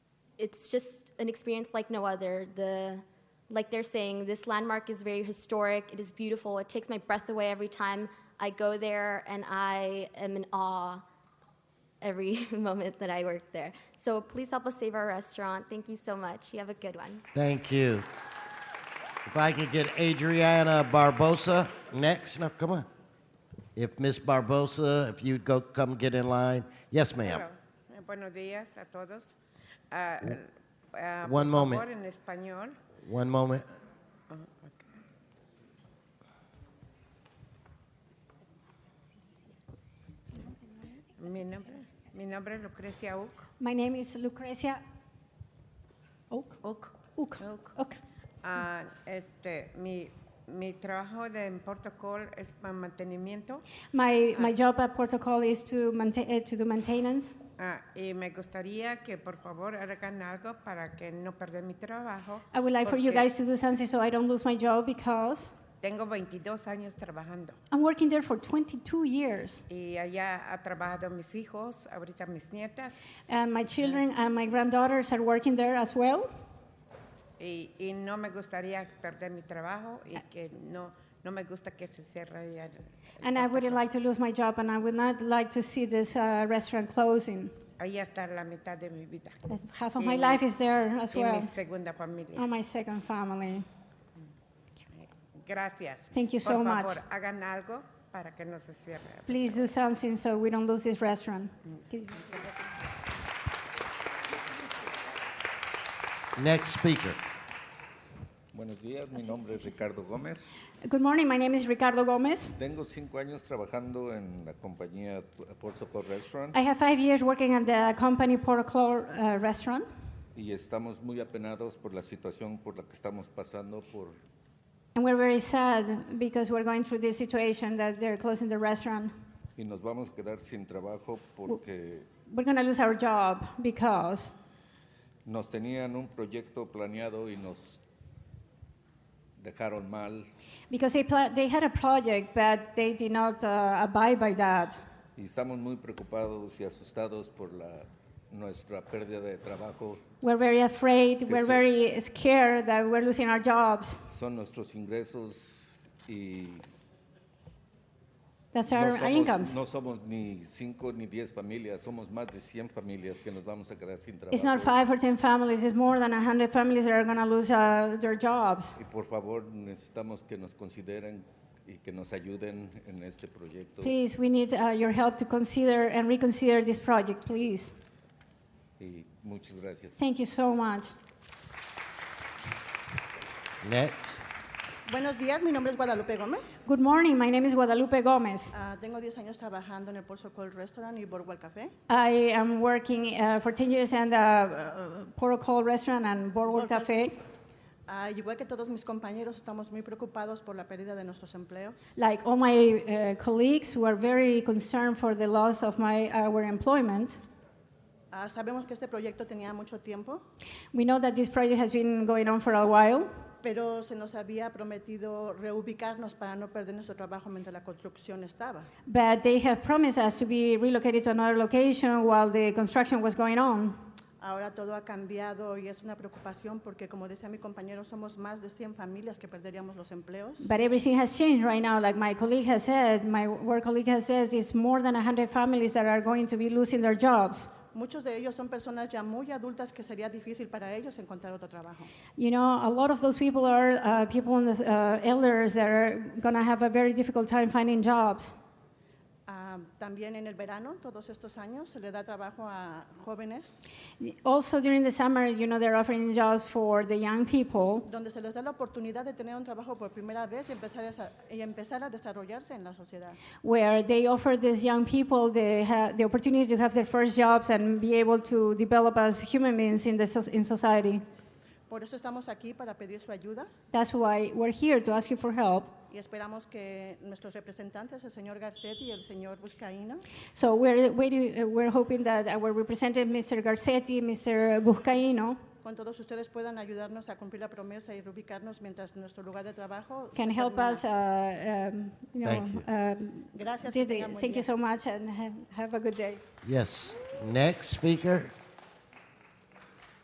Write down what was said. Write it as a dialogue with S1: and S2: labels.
S1: it's just an experience like no other. The like they're saying, this landmark is very historic. It is beautiful. It takes my breath away every time I go there, and I am in awe every moment that I work there. So please help us save our restaurant. Thank you so much. You have a good one.
S2: Thank you. If I could get Adriana Barbosa next. No, come on. If Miss Barbosa, if you'd go come get in line. Yes, ma'am.
S3: Claro. Eh, Buenos días a todos. Ah, ah,
S2: One
S3: por
S2: moment.
S3: favor, en español.
S2: One moment.
S3: Mi nombre, mi nombre es Lucrecia Uc.
S4: My name is Lucrecia Oak.
S3: Uc.
S4: Uc.
S3: Uc.
S4: Oak.
S3: Ah, este, mi, mi trabajo de, en protocolo es para mantenimiento
S4: My, my job at Porto Call is to maintain, eh, to do maintenance.
S3: ah, y me gustaría que por favor hagan algo para que no perder mi trabajo.
S4: I would like for you
S3: porque
S4: guys to do something so I don't lose my job because
S3: Tengo 22 años trabajando
S4: I'm working there for 22 years.
S3: y allá ha trabajado mis hijos, ahorita mis nietas.
S4: And my children and my granddaughters are working there as well.
S3: Y, y no me gustaría perder mi trabajo
S4: Ah.
S3: y que no, no me gusta que se cierre ya el- el
S4: And I
S3: portal.
S4: wouldn't like to lose my job and I would not like to see this uh, restaurant closing.
S3: Ahí está la mitad de mi vida.
S4: That Half of
S3: Y
S4: my
S3: mi-
S4: life is there as
S3: Y mi
S4: well.
S3: segunda familia.
S4: On my second family.
S3: Gracias.
S4: Thank you so
S3: Por
S4: much.
S3: favor, hagan algo para que no se cierre.
S4: Please do something so we don't lose this restaurant.
S2: Next speaker.
S5: Buenos días, mi nombre es Ricardo Gómez.
S4: Good morning. My name is Ricardo Gomez.
S5: Tengo cinco años trabajando en la compañía Port Socorro Restaurant
S4: I have five years working at the company Portoclore uh, restaurant,
S5: y estamos muy apenados por la situación por la que estamos pasando por
S4: and we're very sad because we're going through this situation that they're closing the restaurant.
S5: y nos vamos a quedar sin trabajo porque
S4: We're going to lose our job because
S5: nos tenían un proyecto planeado y nos dejaron mal
S4: because they pla- they had a project, but they did not uh, abide by that,
S5: y estamos muy preocupados y asustados por la nuestra pérdida de trabajo.
S4: we're very afraid. We're
S5: so-
S4: very scared that we're losing our jobs.
S5: Son nuestros ingresos y
S4: That's our,
S5: no
S4: our
S5: somos,
S4: incomes.
S5: no somos ni cinco ni diez familias, somos más de 100 familias que nos vamos a quedar sin trabajo.
S4: It's not five or ten families. It's more than hundred families that are going to lose uh, their jobs.
S5: Y por favor, necesitamos que nos consideren y que nos ayuden en este proyecto.
S4: Please, we need uh, your help to consider and reconsider this project, please.
S5: Y muchas gracias.
S4: Thank you so much.
S2: Next.
S6: Buenos días, mi nombre es Guadalupe Gómez.
S4: Good morning. My name is Guadalupe Gomez.
S6: Ah, tengo 10 años trabajando en el Porso Cold Restaurant y Boardwalk Café.
S4: I am working uh, for 10 years uh, at a protocol restaurant and Boardwalk
S6: Boardwalk.
S4: Cafe.
S6: Ah, y igual que todos mis compañeros, estamos muy preocupados por la pérdida de nuestros empleos.
S4: Like all my uh, colleagues who are very concerned for the loss of my our employment.
S6: Ah, sabemos que este proyecto tenía mucho tiempo,
S4: We know that this project has been going on for a while,
S6: pero se nos había prometido reubicarnos para no perder nuestro trabajo mientras la construcción estaba.
S4: but they have promised us to be relocated to another location while the construction was going on.
S6: Ahora todo ha cambiado y es una preocupación porque, como decía mi compañero, somos más de 100 familias que perderíamos los empleos.
S4: But everything has changed right now. Like my colleague has said, my work colleague has said, it's more than 100 families that are going to be losing their jobs.
S6: Muchos de ellos son personas ya muy adultas que sería difícil para ellos encontrar otro trabajo.
S4: You know, a lot of those people are uh, people in the uh, elders that are going to have a very difficult time finding jobs.
S6: Ah, también en el verano, todos estos años, se le da trabajo a jóvenes,
S4: Also during the summer, you know, they're offering jobs for the young people,
S6: donde se les da la oportunidad de tener un trabajo por primera vez y empezar a, sa- y empezar a desarrollarse en la sociedad.
S4: where they offer these young people the, ha- the opportunity to have their first jobs and be able to develop as human beings in, the so- in society.
S6: Por eso estamos aquí para pedir su ayuda
S4: That's why we're here to ask you for help.
S6: y esperamos que nuestros representantes, el señor Garcetti y el señor Buscaíno,
S4: So we're, waiting, uh, we're hoping that our representative, Mr. Garcetti, Mr. Buscaino,
S6: con todos ustedes puedan ayudarnos a cumplir la promesa y reubicarnos mientras nuestro lugar de trabajo se
S4: can help
S6: termina.
S4: us, uh, um, you know.
S2: Thank you.
S4: um,
S6: Gracias, que
S4: did
S6: tengan
S4: it.
S6: buen
S4: Thank you
S6: día.
S4: so much and have, have a good day.
S2: Yes. Next speaker.